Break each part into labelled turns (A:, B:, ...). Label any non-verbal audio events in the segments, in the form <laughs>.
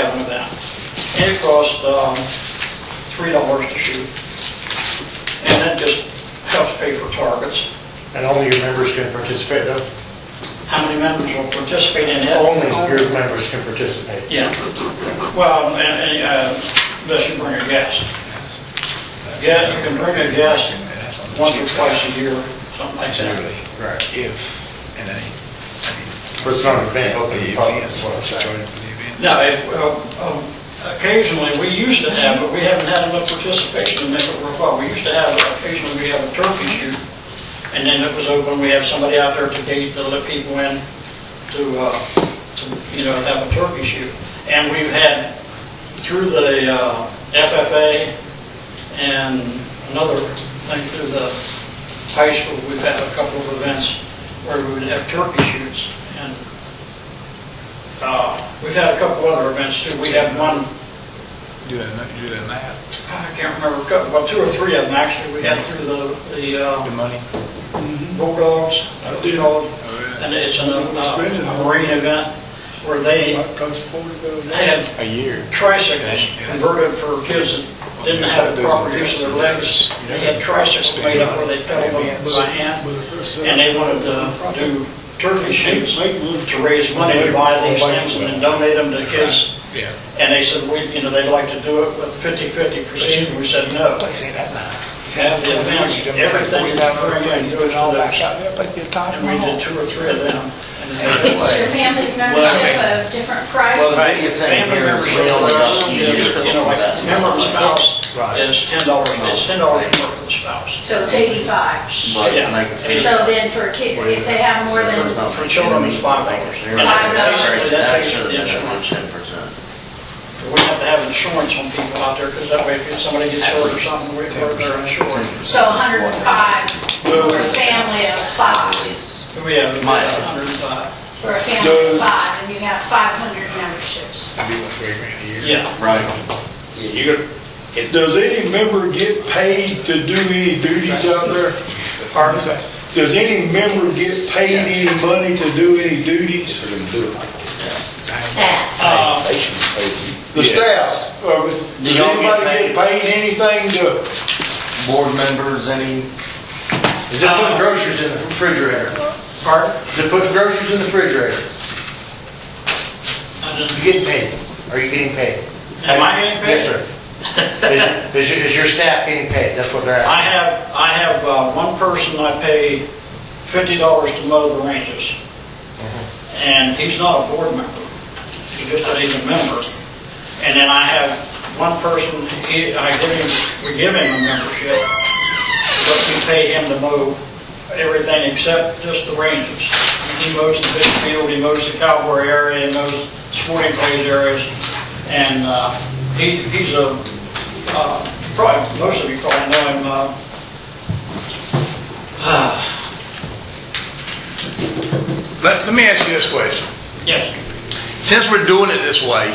A: down. And it costs, um, three dollars to shoot. And that just helps pay for targets.
B: And only your members can participate, uh,
A: How many members will participate in it?
B: only your members can participate.
A: Yeah. Well, and, and, uh, unless you bring a guest. Yeah, you can bring a guest once or twice a year, something like that.
B: Right.
C: If, and any, I mean,
B: But it's not an event.
C: of the
B: That's
C: events,
B: what I'm
C: join
B: saying.
C: the event.
A: Now, if, uh, um, occasionally, we used to have, but we haven't had enough participation to make it worthwhile. We used to have, occasionally, we have a turkey shoot, and then it was open, we have somebody out there at the gate to let people in to, uh, to, you know, have a turkey shoot. And we've had, through the uh, FFA and another thing through the high school, we've had a couple of events where we would have turkey shoots, and uh, We've had a couple other events too. We had one,
C: Do that, do that math,
A: I can't remember, a couple- well, two or three of them actually, we had through the, the
C: the
A: uh, Mm-hmm.
C: money.
A: Bulldogs, that was called,
C: Oh, yeah.
A: and it's an, uh, a marine event where they, they had
D: A year.
A: tricycles converted for kids that didn't have the proper use of their legs. They had tricycles made up where they pedaled them by hand, and they wanted to do turkey shoots to raise money to buy these things and then donate them to kids
C: Yeah.
A: And they said, we, you know, they'd like to do it with 50/50 percent, we said, no.
C: say that now.
A: Have the events, everything that we bring in, do it to those.
C: there, but you're
A: And we did two or three of them. And
C: <laughs>
A: they-
E: It's your family membership of different
D: Well, the
E: price.
D: biggest thing
A: Family
D: here is
A: membership,
D: we only got two years
A: you know,
D: before
A: like, member and
D: that.
A: spouse is ten dollars, it's ten dollars more for the spouse.
E: So it's 85. So
D: But
A: Yeah.
D: like,
E: then for a kid, if they have more than,
D: it's not
A: For children, it's five dollars.
D: You're
A: And
D: right.
A: that
E: Five
A: takes-
E: dollars.
A: that
D: That
A: takes
D: should
A: the
D: have been at least
A: insurance.
D: ten percent.
A: We have to have insurance on people out there, because that way if somebody gets
D: At
A: hurt or
D: least
A: something, we're they're insured.
E: so 105 for a family of five,
A: We have a
D: My-
A: hundred and five.
E: for a family of five, and you have 500 memberships.
A: Yeah,
D: Right.
F: Does any member get paid to do any duties out there?
A: pardon?
F: Does any member get paid any money to do any duties?
A: Uh,
F: The staff, uh,
D: Do
F: does
D: y'all get
F: anybody get paid anything to,
D: Board members, any,
B: Is it putting groceries in the refrigerator?
A: Pardon?
B: Is it putting groceries in the refrigerator?
A: I didn't-
B: You getting paid? Are you getting paid?
A: Am I getting paid?
B: Yes, sir. Is, is your- is your staff getting paid? That's what they're asking.
A: I have, I have uh, one person I pay fifty dollars to mow the ranges. And he's not a board member. He just, he's a member. And then I have one person, he, I give him, we give him a membership, but we pay him to mow everything except just the ranges. He mows the big field, he mows the cowboy area, he mows sporting clays areas, and, uh, he, he's a, uh, probably, most of you probably know him, uh,
C: Let, let me ask you this question.
A: yes,
C: Since we're doing it this way,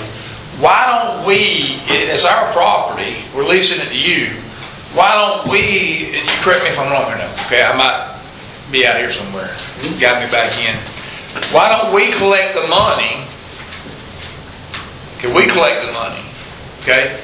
C: why don't we, and it's our property, we're leasing it to you, why don't we, and you correct me if I'm wrong here now, okay, I might be out here somewhere, got me back in. Why don't we collect the money? Can we collect the money? Okay?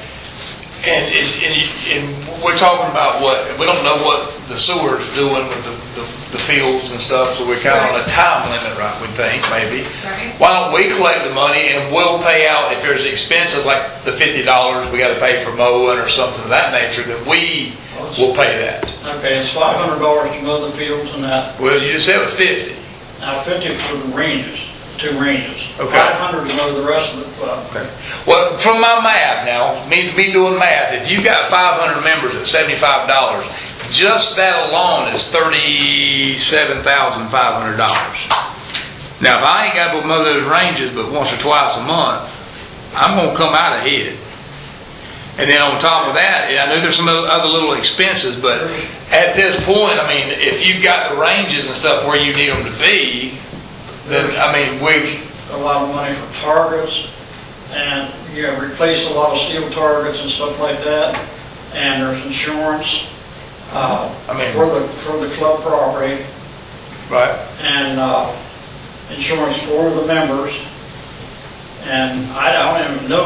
C: And, and, and you- and we're talking about what, we don't know what the sewer's doing with the, the the fields and stuff, so we're kind of on a time limit, right, we think, maybe.
E: Right.
C: Why don't we collect the money and we'll pay out if there's expenses like the fifty dollars we gotta pay for mowing or something of that nature, that we will pay that.
A: okay, it's five hundred dollars to mow the fields and that,
C: Well, you just said it was fifty.
A: now fifty for the ranges, two ranges.
C: Okay.
A: Five hundred to mow the rest of the, uh,
C: Well, from my math now, me, me doing math, if you've got five hundred members at seventy-five dollars, just that alone is thirty-seven thousand five hundred dollars. Now, if I ain't got to mow those ranges but once or twice a month, I'm gonna come out ahead. And then on top of that, yeah, I know there's some other other little expenses, but at this point, I mean, if you've got the ranges and stuff where you need them to be, then, I mean, we,
A: a lot of money for targets and, you know, replace a lot of steel targets and stuff like that. And there's insurance, uh,
C: I mean-
A: for the, for the club property
C: right?
A: and, uh, insurance for the members. And I don't even know